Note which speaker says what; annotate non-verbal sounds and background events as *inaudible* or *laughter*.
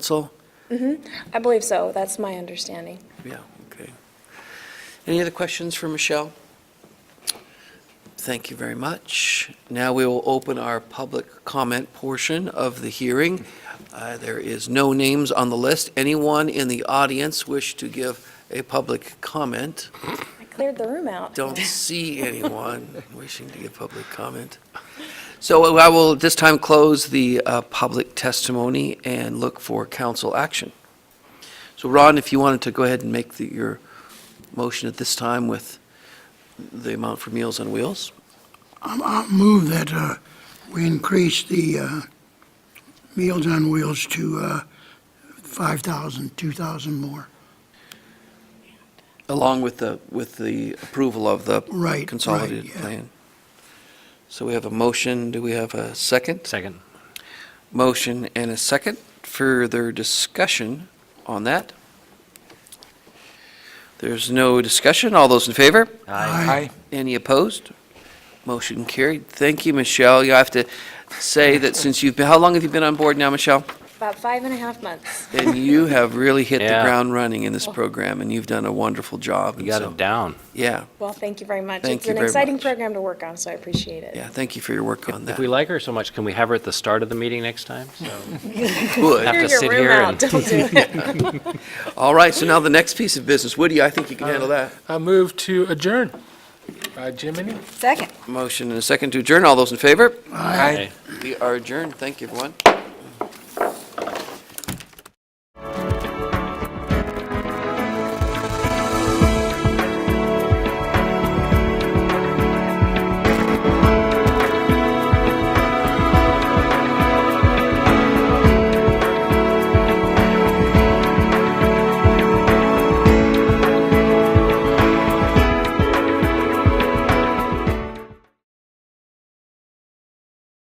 Speaker 1: So,
Speaker 2: I believe so. That's my understanding.
Speaker 1: yeah, okay. Any other questions for Michelle? Thank you very much. Now we will open our public comment portion of the hearing. Uh, There is no names on the list. Anyone in the audience wish to give a public comment?
Speaker 2: I cleared the room out.
Speaker 1: Don't see anyone *laughs* wishing to give public comment. So uh, I will this time close the uh, public testimony and look for council action. So Ron, if you wanted to go ahead and make the- your motion at this time with the amount for Meals on Wheels?
Speaker 3: I'm- I'll move that uh, we increase the uh, Meals on Wheels to uh, 5,000, 2,000 more.
Speaker 1: Along with the, with the approval of the
Speaker 3: Right, right,
Speaker 1: consolidated
Speaker 3: yeah.
Speaker 1: plan. So we have a motion, do we have a second?
Speaker 4: Second.
Speaker 1: Motion and a second. Further discussion on that? There's no discussion. All those in favor?
Speaker 3: Aye.
Speaker 1: Any opposed? Motion carried. Thank you, Michelle. You have to say
Speaker 4: *laughs*
Speaker 1: that since you've been, how long have you been on board now, Michelle?
Speaker 2: *laughs* About five and a half months.
Speaker 1: And you have really hit the
Speaker 4: Yeah.
Speaker 1: ground running in this program, and you've done a wonderful job.
Speaker 4: You
Speaker 1: and
Speaker 4: got
Speaker 1: so-
Speaker 4: it down.
Speaker 1: Yeah,
Speaker 2: Well, thank you very much.
Speaker 1: Thank
Speaker 2: It's
Speaker 1: you
Speaker 2: an
Speaker 1: very
Speaker 2: exciting
Speaker 1: much.
Speaker 2: program to work on, so I appreciate it.
Speaker 1: yeah. Thank you for your work on
Speaker 4: If
Speaker 1: that.
Speaker 4: we like her so much, can we have her at the start of the meeting next time?
Speaker 1: Good.
Speaker 4: have
Speaker 2: Clear
Speaker 4: to
Speaker 2: your
Speaker 4: sit
Speaker 2: room
Speaker 4: here
Speaker 2: out.
Speaker 4: and-
Speaker 1: *laughs*
Speaker 2: Don't do it.
Speaker 1: All right, so now the next piece of business. Woody, I think you can
Speaker 4: Uh,
Speaker 1: handle that.
Speaker 5: I move to adjourn. Uh, Jiminy?
Speaker 6: Second.
Speaker 1: Motion and a second to adjourn. All those in favor?
Speaker 4: Aye.
Speaker 1: We are adjourned. Thank you, everyone.